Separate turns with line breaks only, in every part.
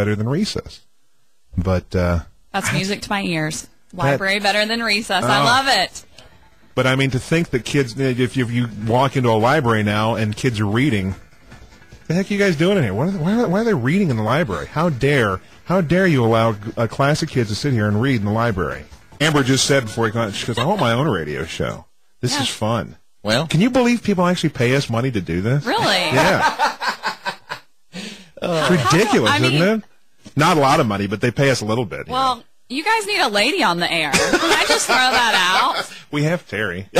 better than recess. But uh,
That's music to my ears. Library better than recess. I
Oh.
love it.
but I mean to think that kids eh, if you, if you walk into a library now and kids are reading, the heck are you guys doing in here? What are they, why, are, why are they reading in the library? How dare how dare you allow a class of kids to sit here and read in the library? Amber just said before he got she goes, I want my own radio show. This is fun.
Well,
Can you believe people actually pay us money to do this?
Really?
Yeah. It's ridiculous,
I mean-
isn't it? Not a lot of money, but they pay us a little bit. you know.
Well, you guys need a lady on the air. Can I just throw that out?
we have Terry.
uh,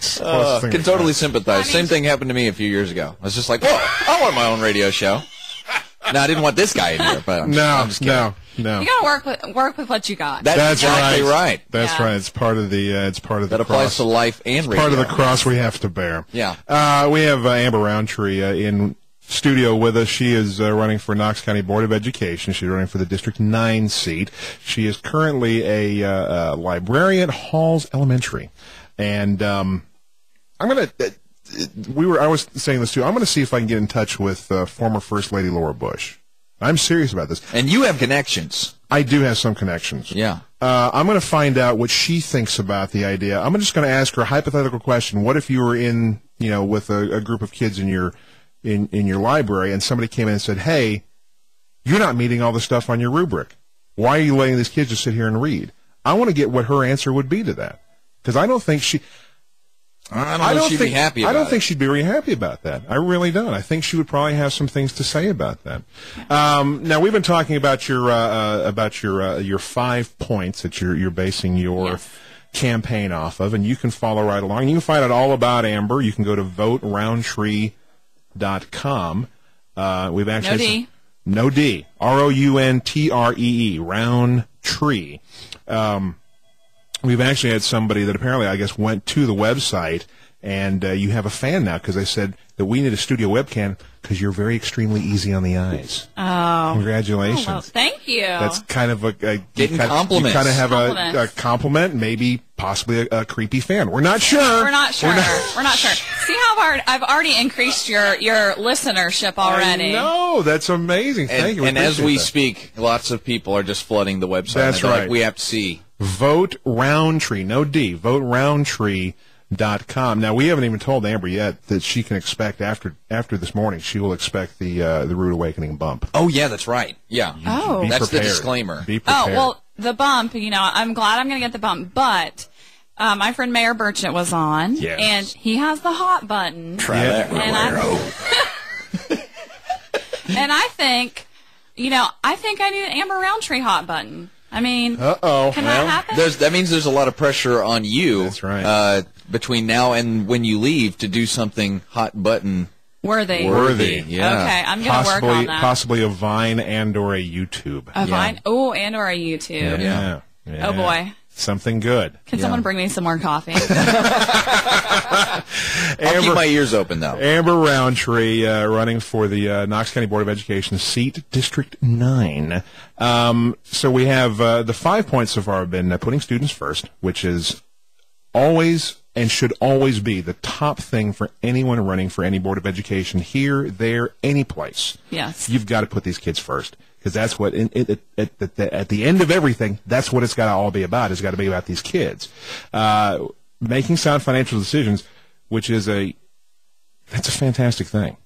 Closest thing
can
we
totally sympathize.
I mean-
Same thing happened to me a few years ago. I was just like, whoa, I want my own radio show. Now, I didn't want this guy in here, but I'm just-
No,
I'm just kidding.
no, no.
You gotta work with work with what you got.
That's,
That's
exactly
right.
right.
That's
Yeah.
right. It's part of the. Uh, it's part of the.
That applies
cross.
to life and radio.
Part of the cross we have to bear.
Yeah.
Uh, we have uh, Amber Roundtree uh, in studio with us. She is uh, running for Knox County Board of Education. She's running for the District 9 seat. She is currently a uh, uh, librarian at Halls Elementary. And um, I'm going to. Uh, we were. I was saying this too. I'm going to see if I can get in touch with uh, former First Lady Laura Bush. I'm serious about this.
And you have connections.
I do have some connections.
Yeah.
Uh, I'm going to find out what she thinks about the idea. I'm just going to ask her a hypothetical question. What if you were in, you know, with a, a group of kids in your in in your library, and somebody came in and said, "Hey, you're not meeting all the stuff on your rubric. Why are you letting these kids just sit here and read?" I want to get what her answer would be to that because I don't think she.
I don't know
I
if
don't
she'd
think
be happy about
I don't
it.
think she'd be really happy about that. I really don't. I think she would probably have some things to say about that. Um, now we've been talking about your uh, uh, about your uh, your five points that you're you're basing your
Yes.
campaign off of, and you can follow right along. You can find out all about Amber. You can go to voteroundtree.com. Uh, we've actually no
No D.
D R O U N T R E E round tree. We've actually had somebody that apparently, I guess, went to the website, and uh, you have a fan now because they said that we need a studio webcam because you're very extremely easy on the eyes. Oh, congratulations!
Well, thank you.
That's kind of a, a you
Getting
kind,
compliments.
You kind of have a, a
Compliments.
compliment, maybe possibly a, a creepy fan. We're not sure.
We're not sure. We're not, sure. See how hard I've already increased your your listenership already.
No, that's amazing.
And,
Thank you.
and as
appreciate
we
that.
speak, lots of people are just flooding the website.
That's
They're
right.
Like, we have to see.
Vote Roundtree, no D, voteroundtree.com. Now, we haven't even told Amber yet that she can expect after after this morning, she will expect the uh, the Rude Awakening bump.
Oh, yeah, that's right. Yeah.
Oh.
Be
That's the
prepared.
disclaimer.
Be prepared.
Oh well, the bump. You know, I'm glad I'm going to get the bump, but uh, my friend Mayor Burchett was on,
Yes.
and he has the hot button.
Yeah.
and I,
Oh.
and I think, you know, I think I need an Amber Roundtree hot button. I mean,
Uh-oh.
can that happen?
There's, that means there's a lot of pressure on you.
That's right.
Uh, between now and when you leave to do something hot button
Worthy.
worthy.
Worthy.
Yeah.
Okay, I'm going to work
Possibly,
on that.
possibly a Vine and or a YouTube.
a Vine. Oh, and or a YouTube.
yeah. Yeah.
Oh, boy.
Something good.
Can someone bring me some more coffee?
I'll
Amber-
keep my ears open though.
Amber Roundtree uh, running for the uh, Knox County Board of Education seat, District 9. Um, so we have uh, the five points so far have been uh, putting students first, which is always and should always be the top thing for anyone running for any Board of Education here, there, any place.
Yes.
You've got to put these kids first because that's what, in, in, at, at, the, at the end of everything, that's what it's got to all be about. It's got to be about these kids. Uh, making sound financial decisions, which is a that's a fantastic thing.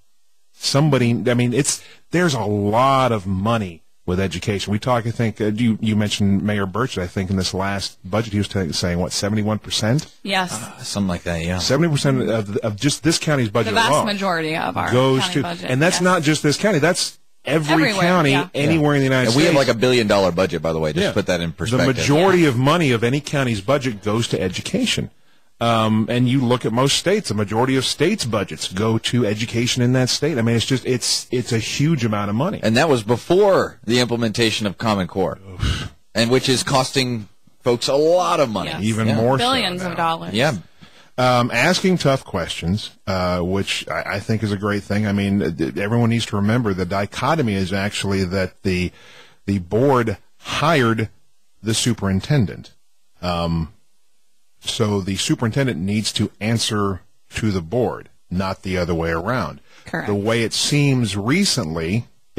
Somebody, I mean, it's there's a lot of money with education. We talk, I think, uh, you you mentioned Mayor Burchett. I think in this last budget, he was t- saying what seventy one percent,
yes.
Something like that, yeah.
seventy percent of of just this county's budget
The vast
alone
majority of our
goes
county
to,
budget.
and that's
yes.
not just this county. That's every
Everywhere,
county
yeah.
anywhere in the United
And we
States.
have like a billion dollar budget, by the way. Just
Yeah.
to put that in perspective.
The majority of money of any county's budget goes to education. Um, and you look at most states, the majority of states' budgets go to education in that state. I mean, it's just it's it's a huge amount of money.
and that was before the implementation of Common Core, and which is costing folks a lot of money.
Yes.
even
Yeah.
more so
billions of
now.
dollars.
Yeah,
Um, asking tough questions, uh, which I, I think is a great thing. I mean, uh, th- everyone needs to remember the dichotomy is actually that the the board hired the superintendent. Um, so the superintendent needs to answer to the board, not the other way around.
Correct.
The way it seems recently,